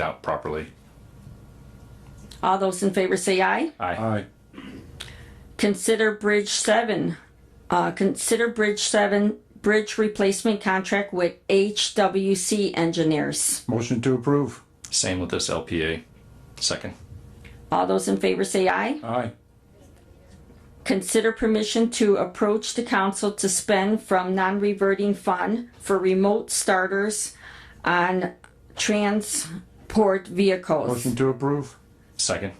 out properly. All those in favor say aye. Aye. Aye. Consider Bridge Seven, uh, consider Bridge Seven Bridge Replacement Contract with HWC Engineers. Motion to approve. Same with this LPA. Second. All those in favor say aye. Aye. Consider permission to approach the council to spend from non-reverting fund for remote starters on transport vehicles. Motion to approve. Second.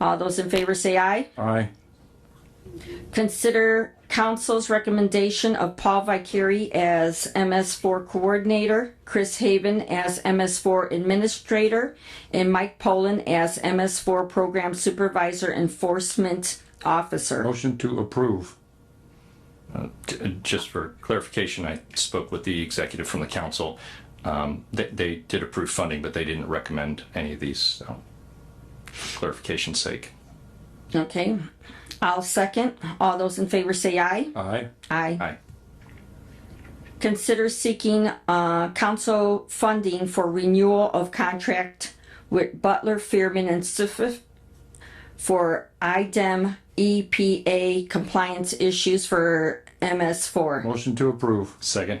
All those in favor say aye. Aye. Consider council's recommendation of Paul Vicari as MS4 coordinator, Chris Haven as MS4 administrator, and Mike Poland as MS4 program supervisor enforcement officer. Motion to approve. J- Uh, Just for clarification, I spoke with the executive from the council. Um, they, they did approve funding, but they didn't recommend any of these. So, for clarification's sake. Okay, I'll second. All those in favor say aye. Aye. Aye. Aye. Consider seeking uh, council funding for renewal of contract with Butler, Fearman, and Stiff for E IDEM EPA compliance issues for MS4. Motion to approve. Second.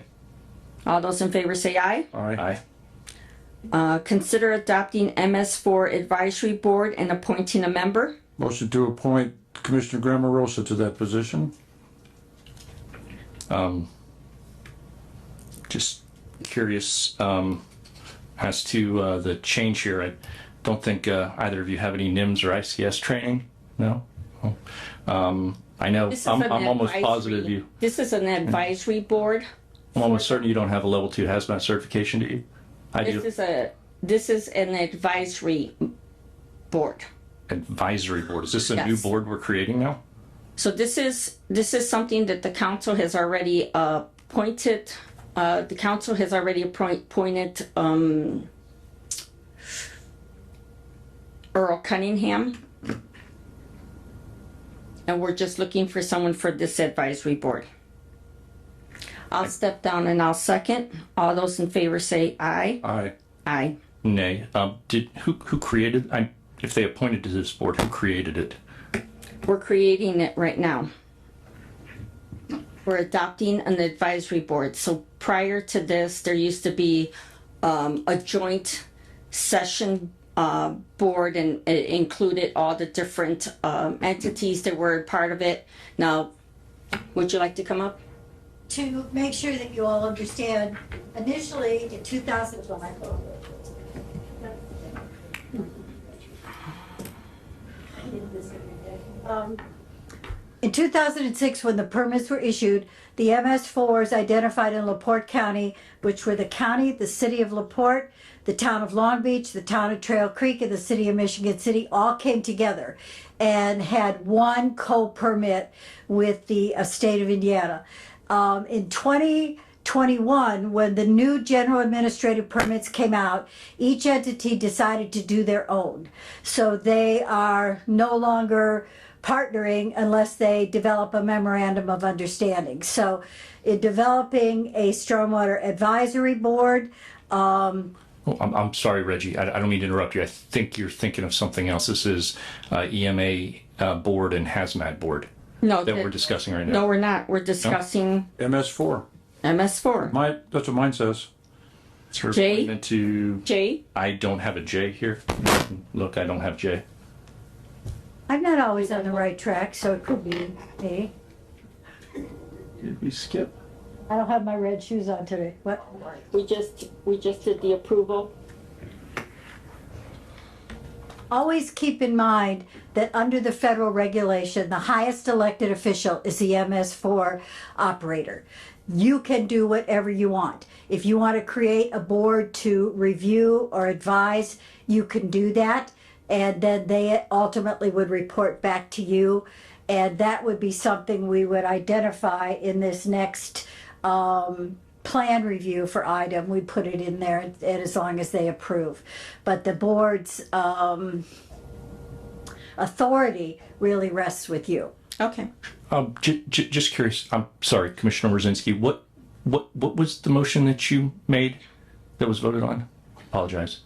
All those in favor say aye. Aye. Aye. Uh, Consider adopting MS4 advisory board and appointing a member. Motion to appoint Commissioner Grammarosa to that position. Um, Just curious um, as to uh, the change here. I don't think uh, either of you have any NIMS or ICS training. No. Oh. Um, I know. This is I'm, an I'm almost advisory- positive you. This is an advisory board. I'm almost certain you don't have a level two hazmat certification, do you? I This do. is a, this is an advisory board. Advisory board. Is this a new Yes. board we're creating now? So this is, this is something that the council has already uh, appointed, uh, the council has already appoint- appointed um, Earl Cunningham. And we're just looking for someone for this advisory board. I'll step down and I'll second. All those in favor say aye. Aye. Aye. Nay. Um, did who who created? I, if they appointed to this board, who created it? We're creating it right now. We're adopting an advisory board. So prior to this, there used to be um, a joint session uh, board and it included all the different um, entities that were part of it. Now, would you like to come up? to make sure that you all understand, initially in 2005, um, in 2006, when the permits were issued, the MS4s identified in LaPorte County, which were the county, the city of LaPorte, the town of Long Beach, the town of Trail Creek, and the city of Michigan City, all came together and had one co-permit with the uh, state of Indiana. Um, in 2021, when the new general administrative permits came out, each entity decided to do their own. So they are no longer partnering unless they develop a memorandum of understanding. So in developing a stormwater advisory board, Oh, I'm, I'm sorry, Reggie. I, I don't mean to interrupt you. I think you're thinking of something else. This is uh, EMA uh, board and hazmat board No. that we're discussing right now. Uh, No, we're not. We're discussing MS four. MS4. My, that's what mine says. It's her Jay? appointment to. Jay? I don't have a J here. Look, I don't have J. I'm not always on the right track, so it could be me. Did we skip? I don't have my red shoes on today. What? We just, we just did the approval. Always keep in mind that under the federal regulation, the highest elected official is the MS4 operator. You can do whatever you want. If you want to create a board to review or advise, you can do that. And then they ultimately would report back to you. And that would be something we would identify in this next um, plan review for item. We put it in there, and as long as they approve. But the board's um, authority really rests with you. Okay. Um, j- j- just curious. I'm sorry, Commissioner Rosinski. What what what was the motion that you made that was voted on? Apologize.